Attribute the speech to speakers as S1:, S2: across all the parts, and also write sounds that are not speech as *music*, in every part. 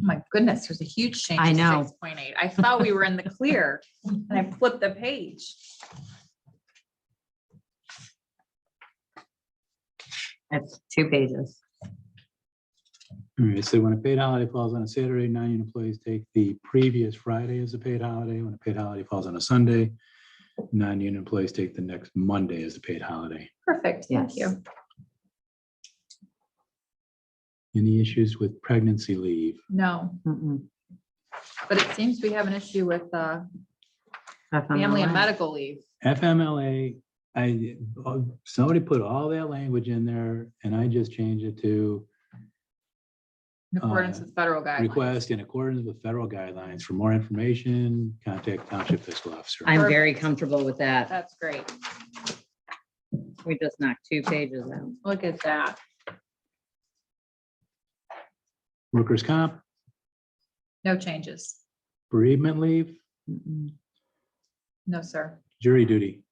S1: my goodness, there's a huge change.
S2: I
S1: to
S2: know.
S1: 6.8. I thought we were in the clear and
S2: *laughs*
S1: I flipped the page.
S2: That's two pages.
S3: All right, so when a paid holiday falls on a Saturday, non-union employees take the previous Friday as a paid holiday. When a paid holiday falls on a Sunday, non-union employees take the next Monday as a paid holiday.
S1: Perfect. Thank
S2: Yes.
S1: you.
S3: Any issues with pregnancy leave?
S1: No,
S2: Mm-mm.
S1: but it seems we have an issue with uh,
S2: That's on the
S1: family and
S2: left.
S1: medical leave.
S3: FMLA, I, oh, somebody put all that language in there and I just changed it to
S1: In accordance
S3: Uh,
S1: with federal guidelines.
S3: request in accordance with federal guidelines. For more information, contact Township Fiscal Officer.
S2: I'm very comfortable with that.
S1: That's great.
S2: We just knocked two pages out.
S1: Look at that.
S3: Workers' comp,
S1: No changes.
S3: bereavement leave,
S2: Mm-mm.
S1: No, sir.
S3: jury duty,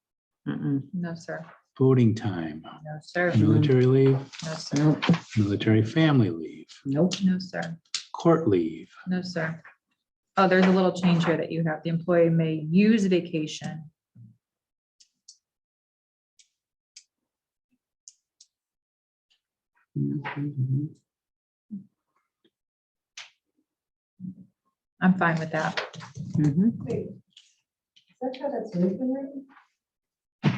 S2: Mm-mm.
S1: No, sir.
S3: voting time,
S1: No, sir.
S2: No.
S3: military leave,
S1: No, sir.
S2: Nope,
S3: military family leave,
S2: nope.
S1: No, sir.
S3: court leave,
S1: No, sir. Oh, there's a little change here that you have. The employee may use vacation.
S2: Mhm.
S1: I'm fine with that.
S2: Mhm.
S4: Wait, is that how that's written right?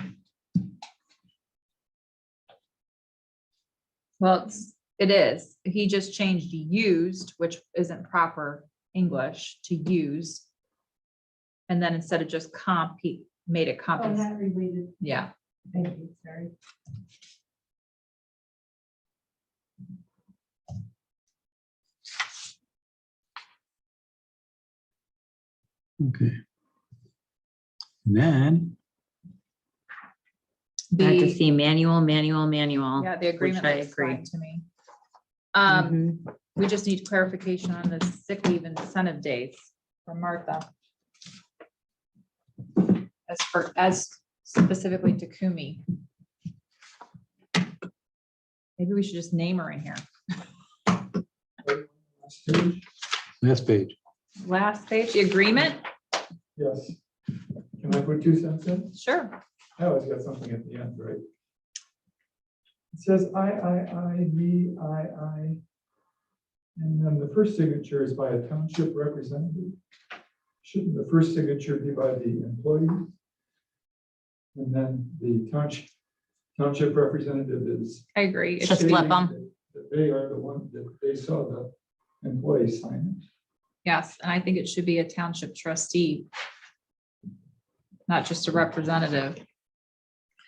S1: Well, it's, it is. He just changed used, which isn't proper English to use. And then instead of just comp, he made it
S4: Oh,
S1: compensate.
S4: not related,
S1: Yeah,
S4: thank you, sorry.
S3: okay. And Then,
S2: I have to
S1: the,
S2: see manual, manual, manual.
S1: yeah, the agreement
S2: I
S1: looks fine
S2: agree.
S1: to me. Um,
S2: Mhm.
S1: We just need clarification on the sick leave and incentive days for Martha. As for, as specifically to Kumi. Maybe we should just name her in here.
S3: last page,
S1: Last page, the agreement?
S5: Yes. Can I put two cents in?
S1: Sure.
S5: I always got something at the end, right? It says I, I, I, V, I, I. And then the first signature is by a township representative. Shouldn't the first signature be by the employee? And then the township, township representative is.
S1: I agree. It
S2: Just
S1: should be-
S2: flip 'em.
S5: That They are the one that they saw the employee sign.
S1: Yes, and I think it should be a township trustee. Not just a representative.
S5: But should-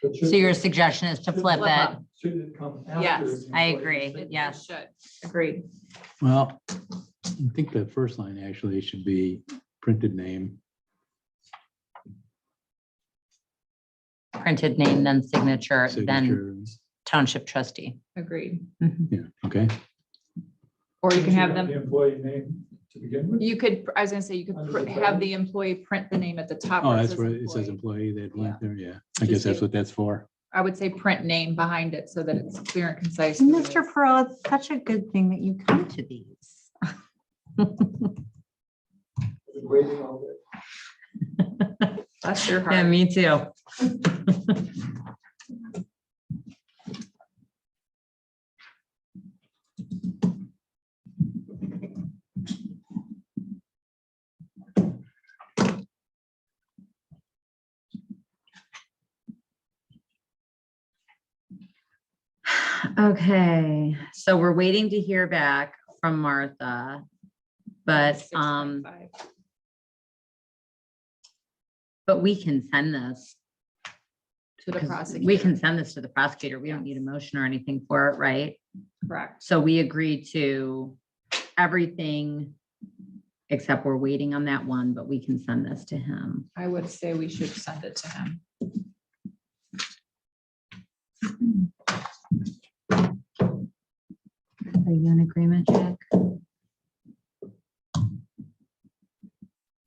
S2: Mm-hmm. So your suggestion is to flip
S1: Flip
S2: it?
S1: 'em.
S5: Should it come after?
S1: Yes,
S5: the
S2: I
S5: employee
S2: agree.
S5: signature?
S2: Yeah.
S1: Should, agreed.
S3: well, I think the first line actually should be printed name,
S2: Printed name, then signature, then
S3: signature,
S2: township trustee.
S1: Agreed.
S2: Mhm.
S3: yeah, okay,
S1: Or you can
S5: Should
S1: have
S5: have
S1: them.
S5: The employee name to begin with?
S1: You could, I was gonna say, you could
S5: Under
S1: pr-
S5: the
S1: have
S5: brand.
S1: the employee print the name at the top.
S3: oh,
S1: where it
S3: that's
S1: says
S3: where it says
S1: employee.
S3: employee, that
S1: Yeah.
S3: went there, yeah, I
S1: Just
S3: guess that's
S1: give-
S3: what that's for.
S1: I would say print name behind it so that it's clear and concise. who it
S2: Mr.
S1: is.
S2: Pearl, it's such a good thing that you come to these.
S5: Waiting all day.
S1: Bless your
S2: Yeah,
S1: heart.
S2: me too. Okay, so we're waiting to hear back from Martha. But, um,
S1: 6.5.
S2: but we can send this.
S1: To the
S2: 'cause
S1: prosecutor.
S2: We can send this to the prosecutor. We don't need a motion or anything for it, right?
S1: Correct.
S2: So we agree to everything except we're waiting on that one, but we can send this to him.
S1: I would say we should send it to him.
S2: Are you in agreement, Jack?